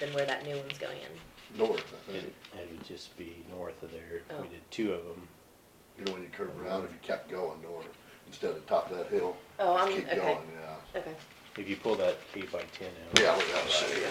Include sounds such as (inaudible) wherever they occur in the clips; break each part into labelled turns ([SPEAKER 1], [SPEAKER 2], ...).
[SPEAKER 1] than where that new one's going in.
[SPEAKER 2] north, I
[SPEAKER 3] It
[SPEAKER 2] think.
[SPEAKER 3] it would just be north of there.
[SPEAKER 1] Oh.
[SPEAKER 3] We did two of them.
[SPEAKER 2] You know, when you curve around, if you kept going north, instead of top of that hill,
[SPEAKER 1] Oh,
[SPEAKER 2] just
[SPEAKER 1] I'm-
[SPEAKER 2] keep
[SPEAKER 1] okay.
[SPEAKER 2] going, yeah.
[SPEAKER 1] Okay.
[SPEAKER 3] If you pull that eight by ten out.
[SPEAKER 2] Yeah, we gotta see.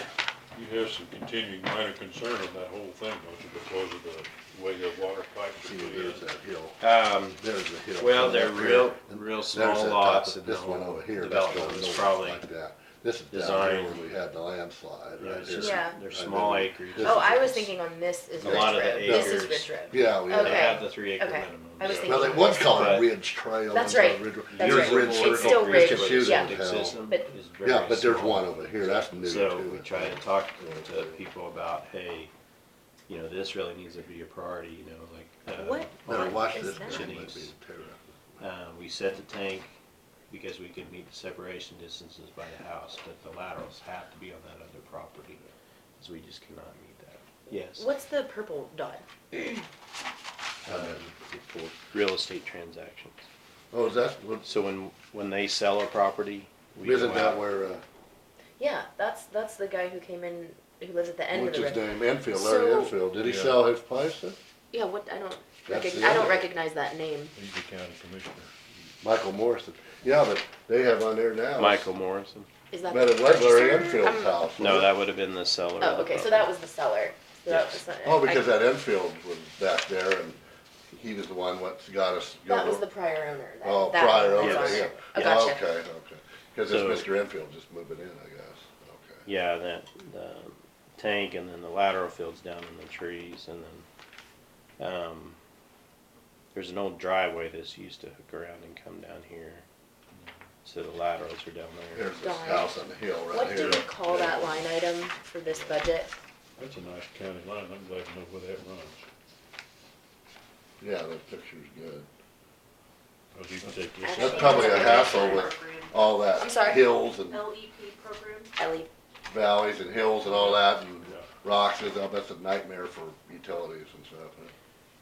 [SPEAKER 4] You have some continuing minor concern on that whole thing, don't you, because of the way the water pipes are
[SPEAKER 2] See,
[SPEAKER 4] put
[SPEAKER 2] there's
[SPEAKER 4] in?
[SPEAKER 2] that hill,
[SPEAKER 3] Um,
[SPEAKER 2] there's the hill.
[SPEAKER 3] Well,
[SPEAKER 2] coming
[SPEAKER 3] they're
[SPEAKER 2] up here,
[SPEAKER 3] real-
[SPEAKER 2] and
[SPEAKER 3] real
[SPEAKER 2] there's
[SPEAKER 3] small
[SPEAKER 2] that top of-
[SPEAKER 3] lots and
[SPEAKER 2] This
[SPEAKER 3] the
[SPEAKER 2] one
[SPEAKER 3] whole
[SPEAKER 2] over here, that's
[SPEAKER 3] development
[SPEAKER 2] going
[SPEAKER 3] is
[SPEAKER 2] north
[SPEAKER 3] probably
[SPEAKER 2] like that. This is down here
[SPEAKER 3] designed-
[SPEAKER 2] where we had the landslide
[SPEAKER 3] yeah,
[SPEAKER 2] right
[SPEAKER 3] it's just-
[SPEAKER 2] here.
[SPEAKER 1] Yeah.
[SPEAKER 3] They're
[SPEAKER 2] And
[SPEAKER 3] small
[SPEAKER 2] then
[SPEAKER 3] acreage.
[SPEAKER 2] this
[SPEAKER 1] Oh,
[SPEAKER 2] is-
[SPEAKER 1] I was thinking on this is
[SPEAKER 3] A
[SPEAKER 1] Ridge
[SPEAKER 3] lot of the
[SPEAKER 1] Road. This is
[SPEAKER 3] acres-
[SPEAKER 1] Ridge Road.
[SPEAKER 2] Yeah, we
[SPEAKER 3] They
[SPEAKER 1] Okay.
[SPEAKER 2] had,
[SPEAKER 3] have the three acre
[SPEAKER 1] Okay.
[SPEAKER 3] minimum.
[SPEAKER 1] I was
[SPEAKER 3] so-
[SPEAKER 2] well,
[SPEAKER 1] thinking-
[SPEAKER 2] they would call it
[SPEAKER 3] But-
[SPEAKER 2] Ridge Trail.
[SPEAKER 1] That's
[SPEAKER 2] and
[SPEAKER 1] right.
[SPEAKER 2] Ridge Road.
[SPEAKER 1] That's
[SPEAKER 2] Yours
[SPEAKER 1] right.
[SPEAKER 2] Ridge
[SPEAKER 1] It's
[SPEAKER 2] Circle,
[SPEAKER 1] still
[SPEAKER 2] Ridge
[SPEAKER 1] Ridge,
[SPEAKER 2] Shooting
[SPEAKER 1] yeah.
[SPEAKER 2] Hill.
[SPEAKER 1] But-
[SPEAKER 2] Yeah, but there's one over here, that's new too.
[SPEAKER 3] So we try to talk
[SPEAKER 2] Yeah.
[SPEAKER 3] to people about, hey, you know, this really needs to be a priority, you know, like. uh,
[SPEAKER 1] What?
[SPEAKER 2] Better watch
[SPEAKER 1] Is
[SPEAKER 2] this,
[SPEAKER 1] that?
[SPEAKER 2] because it might be
[SPEAKER 3] Shitties.
[SPEAKER 2] a terror.
[SPEAKER 3] Uh, we set the tank because we could meet the separation distances by the house, but the laterals have to be on that other property. So we just cannot meet that. Yes,
[SPEAKER 1] What's the purple dot?
[SPEAKER 2] Uh, before-
[SPEAKER 3] real estate transactions.
[SPEAKER 2] Oh, is that, what-
[SPEAKER 3] So when, when they sell a property, we go
[SPEAKER 2] isn't that
[SPEAKER 3] out.
[SPEAKER 2] where, uh,
[SPEAKER 1] Yeah, that's that's the guy who came in who lives at the end
[SPEAKER 2] what's
[SPEAKER 1] of
[SPEAKER 2] his
[SPEAKER 1] the road.
[SPEAKER 2] name, Enfield, Larry
[SPEAKER 1] So-
[SPEAKER 2] Enfield, did he
[SPEAKER 4] Yeah.
[SPEAKER 2] sell his place then?
[SPEAKER 1] Yeah, what I don't
[SPEAKER 2] That's
[SPEAKER 1] recog-
[SPEAKER 2] the
[SPEAKER 1] I
[SPEAKER 2] other
[SPEAKER 1] don't
[SPEAKER 2] one.
[SPEAKER 1] recognize that name.
[SPEAKER 4] He's the county commissioner.
[SPEAKER 2] Michael Morrison, yeah, but they have on there now.
[SPEAKER 3] Michael Morrison?
[SPEAKER 1] Is that
[SPEAKER 2] But
[SPEAKER 1] the
[SPEAKER 2] it was Larry
[SPEAKER 1] purchaser?
[SPEAKER 2] Enfield's
[SPEAKER 1] I'm-
[SPEAKER 2] house.
[SPEAKER 3] No,
[SPEAKER 2] wasn't it?
[SPEAKER 3] that would have been the seller. of
[SPEAKER 1] Oh,
[SPEAKER 3] the
[SPEAKER 1] okay, so
[SPEAKER 3] property.
[SPEAKER 1] that was the seller. So that
[SPEAKER 3] Yes.
[SPEAKER 1] was-
[SPEAKER 2] Oh, because
[SPEAKER 1] I-
[SPEAKER 2] that Enfield was back there and he was the one what got us.
[SPEAKER 1] That was the prior owner. That,
[SPEAKER 2] Oh,
[SPEAKER 1] that
[SPEAKER 2] prior
[SPEAKER 1] one was
[SPEAKER 2] owner,
[SPEAKER 1] on
[SPEAKER 3] Yes.
[SPEAKER 2] yeah.
[SPEAKER 1] there. Oh,
[SPEAKER 3] Yeah.
[SPEAKER 1] gotcha.
[SPEAKER 2] Okay, okay. Cause it's
[SPEAKER 3] So-
[SPEAKER 2] Mr. Enfield just moving in, I guess,
[SPEAKER 3] Yeah, that, the tank and then the lateral fields down in the trees and then, um, there's an old driveway that's used to hook around and come down here. So the laterals are down
[SPEAKER 2] okay.
[SPEAKER 3] there.
[SPEAKER 2] Here's this
[SPEAKER 1] Darn.
[SPEAKER 2] house on the hill right
[SPEAKER 1] What
[SPEAKER 2] here.
[SPEAKER 1] do we call
[SPEAKER 2] Yeah.
[SPEAKER 1] that line item for this budget?
[SPEAKER 4] That's a nice county line, I'm glad to know where that runs,
[SPEAKER 2] Yeah, that picture's good.
[SPEAKER 4] because you can take
[SPEAKER 1] I
[SPEAKER 4] this.
[SPEAKER 1] think
[SPEAKER 2] That's probably
[SPEAKER 1] it's
[SPEAKER 2] a
[SPEAKER 1] a
[SPEAKER 2] hassle with all
[SPEAKER 1] I'm
[SPEAKER 2] that
[SPEAKER 1] sorry? Oh,
[SPEAKER 2] hills and
[SPEAKER 1] E
[SPEAKER 5] LEP program.
[SPEAKER 1] Ellie,
[SPEAKER 2] valleys and hills and all that and
[SPEAKER 4] Yeah.
[SPEAKER 2] rocks and stuff. That's a nightmare for utilities and stuff.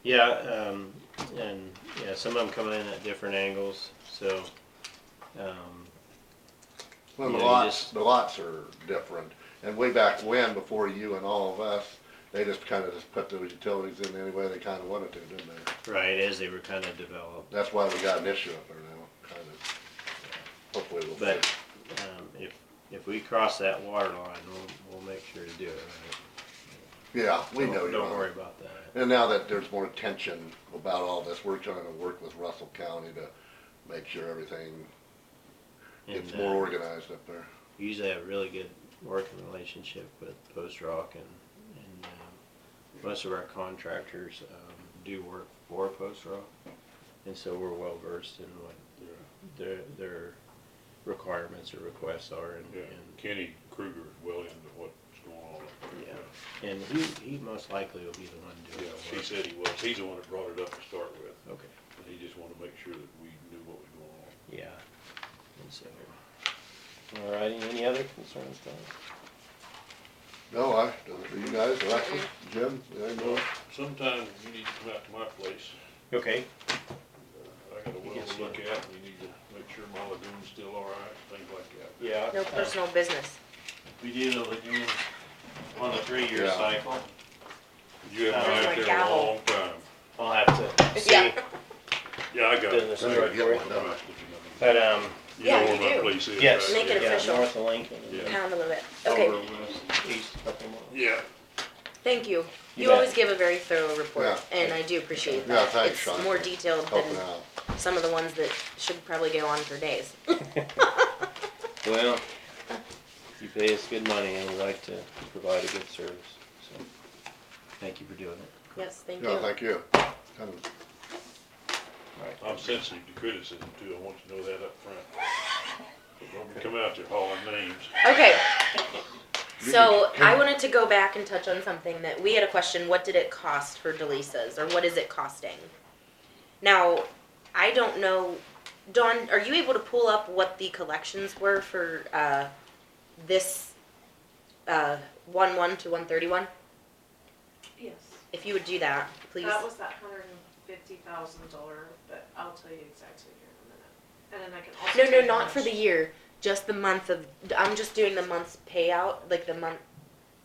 [SPEAKER 3] Yeah, um, and, yeah, some of them come in at different angles, so, um,
[SPEAKER 2] Well, the
[SPEAKER 3] Yeah, you
[SPEAKER 2] lots,
[SPEAKER 3] just-
[SPEAKER 2] the lots are different. And way back when, before you and all of us, they just kinda just put those utilities in any way they kinda wanted to, didn't they?
[SPEAKER 3] right, as they were kind of developed.
[SPEAKER 2] That's why we got an issue up there now, kind of. Hopefully we'll
[SPEAKER 3] But,
[SPEAKER 2] fix it.
[SPEAKER 3] um, if, if we cross that water line, we'll, we'll make sure to do it, right?
[SPEAKER 2] Yeah, we know
[SPEAKER 3] Don't-
[SPEAKER 2] you're
[SPEAKER 3] Don't worry
[SPEAKER 2] on.
[SPEAKER 3] about that.
[SPEAKER 2] And now that there's more attention about all this, we're trying to work with Russell County to make sure everything
[SPEAKER 3] And,
[SPEAKER 2] gets
[SPEAKER 3] uh,
[SPEAKER 2] more organized up there.
[SPEAKER 3] we usually have a really good working relationship with Post Rock and, and um, most of our contractors um, do work for Post Rock. And so we're well versed in what their, their requirements or requests are and,
[SPEAKER 4] Yeah, Kenny Kruger is well into what's going on. up there.
[SPEAKER 3] Yeah. and, and he, he most likely will be the one doing
[SPEAKER 4] Yeah,
[SPEAKER 3] the
[SPEAKER 4] he
[SPEAKER 3] work.
[SPEAKER 4] said he was, he's the one that brought it up to start with,
[SPEAKER 3] Okay,
[SPEAKER 4] and he just wanted to make sure that we knew what was going on.
[SPEAKER 3] yeah. And so, all righty, any other concerns, Don?
[SPEAKER 2] No, I, you guys, Alexis, Jim, anything more?
[SPEAKER 4] Sometimes you need to come out to my place.
[SPEAKER 3] Okay,
[SPEAKER 4] I got a well
[SPEAKER 3] Yes,
[SPEAKER 4] to
[SPEAKER 3] sir.
[SPEAKER 4] look at, and you need to make sure my lagoon's still all right, things like that.
[SPEAKER 3] yeah.
[SPEAKER 1] no
[SPEAKER 3] uh,
[SPEAKER 1] personal business.
[SPEAKER 3] We did a lagoon on a three-year
[SPEAKER 2] Yeah.
[SPEAKER 3] cycle.
[SPEAKER 4] You
[SPEAKER 3] Uh,
[SPEAKER 4] haven't been
[SPEAKER 1] There's
[SPEAKER 4] out there in
[SPEAKER 1] my
[SPEAKER 4] a
[SPEAKER 1] gavel.
[SPEAKER 4] long time.
[SPEAKER 3] I'll have to see.
[SPEAKER 1] Yeah.
[SPEAKER 4] Yeah, I got it.
[SPEAKER 3] Business
[SPEAKER 4] I
[SPEAKER 2] Better
[SPEAKER 4] got
[SPEAKER 3] card
[SPEAKER 4] it.
[SPEAKER 2] get
[SPEAKER 3] for
[SPEAKER 2] one
[SPEAKER 4] All
[SPEAKER 2] done.
[SPEAKER 4] right, if you know me.
[SPEAKER 3] But, um,
[SPEAKER 4] You
[SPEAKER 1] Yeah,
[SPEAKER 4] know
[SPEAKER 1] you
[SPEAKER 4] where
[SPEAKER 1] do.
[SPEAKER 4] my place is,
[SPEAKER 3] yes.
[SPEAKER 4] right?
[SPEAKER 1] Make it
[SPEAKER 4] Yeah.
[SPEAKER 3] yeah,
[SPEAKER 1] official.
[SPEAKER 3] North of Lincoln.
[SPEAKER 4] Yeah.
[SPEAKER 1] Pound a little bit.
[SPEAKER 2] Oh,
[SPEAKER 1] Okay,
[SPEAKER 3] Over west, east, up and west.
[SPEAKER 4] Yeah,
[SPEAKER 1] thank you.
[SPEAKER 3] You
[SPEAKER 1] You
[SPEAKER 3] bet.
[SPEAKER 1] always give a very thorough report,
[SPEAKER 2] Yeah.
[SPEAKER 1] and I do appreciate
[SPEAKER 2] Yeah,
[SPEAKER 1] that.
[SPEAKER 2] thanks, Sean,
[SPEAKER 1] It's more
[SPEAKER 2] for
[SPEAKER 1] detailed
[SPEAKER 2] Helping
[SPEAKER 1] than
[SPEAKER 2] out.
[SPEAKER 1] some of the ones that should probably go on for days.
[SPEAKER 3] Well, you pay us good money and we like to provide a good service, so, thank you for doing it.
[SPEAKER 1] Yes, thank
[SPEAKER 2] Yeah,
[SPEAKER 1] you.
[SPEAKER 2] thank you. Kind of
[SPEAKER 4] I'm sensitive to criticism too, I want you to know that up front. But Don't come out there hauling names.
[SPEAKER 2] (laughs)
[SPEAKER 1] Okay.
[SPEAKER 2] You
[SPEAKER 1] So
[SPEAKER 2] can-
[SPEAKER 1] I wanted to go back and touch on something that we had a question, what did it cost for Delisa's or what is it costing? Now, I don't know, Dawn, are you able to pull up what the collections were for, uh, this, uh, one one to one thirty-one?
[SPEAKER 5] Yes.
[SPEAKER 1] If you would do that, please.
[SPEAKER 5] That was that hundred and fifty thousand dollar, but I'll tell you exactly here in a minute. And then I can also.
[SPEAKER 1] No,
[SPEAKER 5] tell
[SPEAKER 1] no,
[SPEAKER 5] you
[SPEAKER 1] not
[SPEAKER 5] how
[SPEAKER 1] for the
[SPEAKER 5] much-
[SPEAKER 1] year, just the month of, I'm just doing the month's payout, like the month,